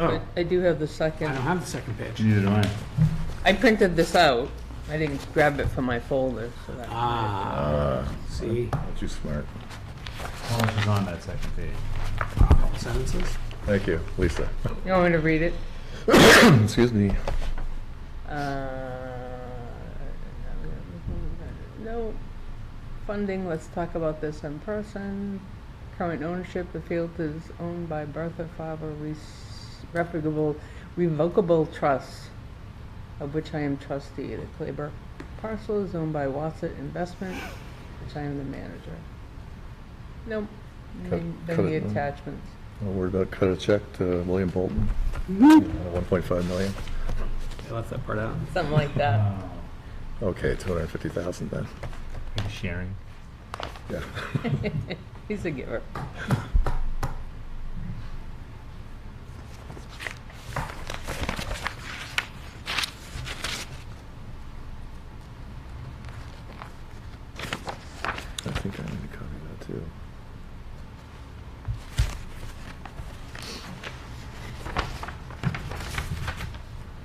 Oh, I do have the I don't second. have the second page. neither do I. I printed this out. I didn't grab it from my folder, so that, Ah, Uh, see, too smart. How much is on that second page? couple sentences. Thank you, Lisa. you want me to read it? Excuse me. Uh, No, funding, let's talk about this in person. Current ownership, the field is owned by Bertha Faber Res- Reputable Revocable Trust, of which I am trustee. The Claver parcel is owned by Wassett Investment, which I am the manager. Nope, Cut- cut any it, no. attachments. I'll worry about cut a check to William Bolton. Mm-hmm. One point five million. I left that part out. Something like that. Oh, Okay, two hundred and fifty thousand then. are you sharing? Yeah. He's a giver. I think I need to copy that too.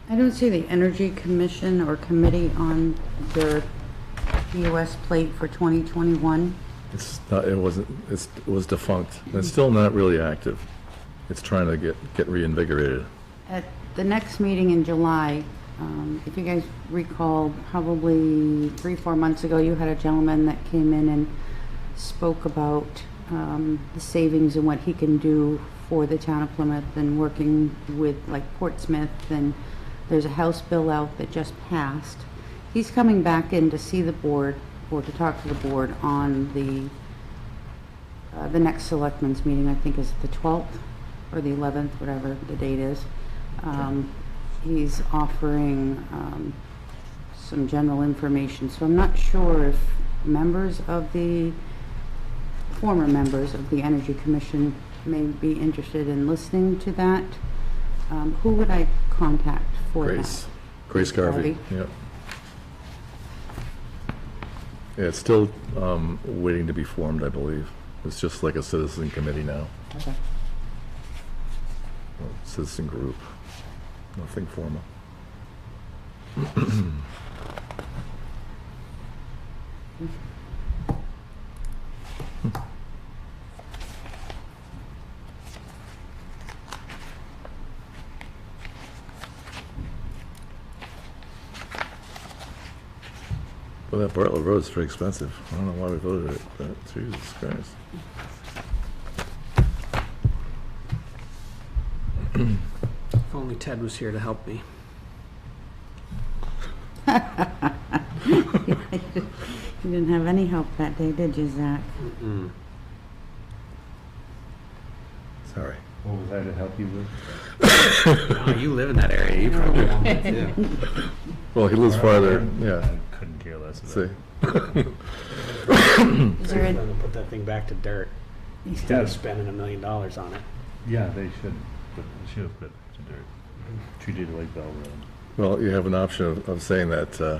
I don't see the Energy Commission or Committee on their US plate for 2021. It's not, it wasn't, it's, it was defunct. It's still not really active. It's trying to get, get reinvigorated. At the next meeting in July, um, if you guys recall, probably three, four months ago, you had a gentleman that came in and spoke about um, the savings and what he can do for the town of Plymouth and working with like Portsmouth. And there's a House bill out that just passed. He's coming back in to see the board or to talk to the board on the uh, the next selectmen's meeting, I think, is the 12th or the 11th, whatever the date is. Um, He's offering um, some general information, so I'm not sure if members of the, former members of the Energy Commission may be interested in listening to that. Um, Who would I contact for that? Grace, Grace Garvey, Garvey. yep. Yeah, it's still, um, waiting to be formed, I believe. It's just like a citizen committee now, Okay. or citizen group, nothing formal. Well, that Bartlett Road's very expensive. I don't know why we voted it, but Jesus Christ. If only Ted was here to help me. You didn't have any help that day, did you, Zach? Hmm. Sorry. What was I to help you with? Oh, you live in that area, you probably want it too. Well, he lives farther, yeah, I couldn't care less about see. it. Is Rather there a- than put that thing back to dirt, instead of spending a million dollars on it. Yeah, they should, but they should have put it to dirt. Treated it like Bell Road. Well, you have an option of, of saying that, uh,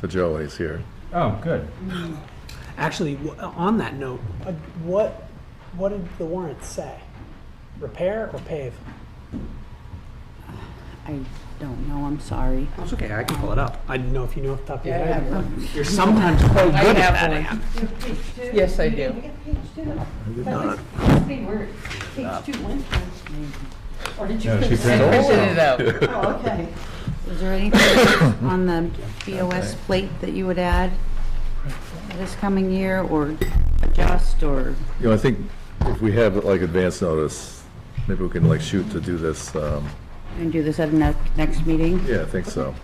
to Joe when he's here. Oh, good. Actually, w- on that note, uh, what, what did the warrant say? Repair or pave? I don't know, I'm sorry. That's okay, I can pull it up. I didn't know if you knew off the top of your Yeah, I head. have one. You're sometimes quite I good have at that, one. Ann. Yes, I do. They were, page two went first, maybe. Or did you? No, she I finish? printed printed it out. Oh, okay. Is there anything else on the BOS plate that you would add this coming year, or adjust, or You know, I think if we have like advance notice, maybe we can like shoot to do this, um, and do this at the ne- next meeting? yeah, I think so.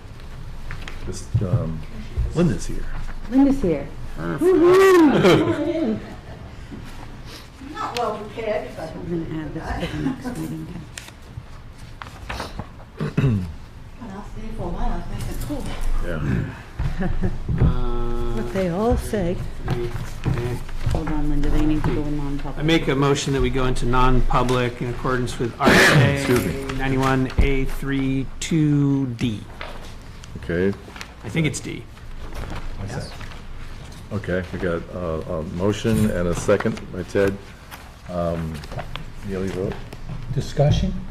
Just, um, Linda's here. Linda's here. Not well prepared, but We're gonna add this to the next meeting. when I was there for a while, I was like, cool. Yeah. Uh, They all say. okay. Hold on, Linda, they need to go in non-public. I make a motion that we go into non-public in accordance with RSA 91A32D. Okay, I think it's D. Yes. okay, we got, uh, a motion and a second by Ted. Um, Neely vote? Discussion?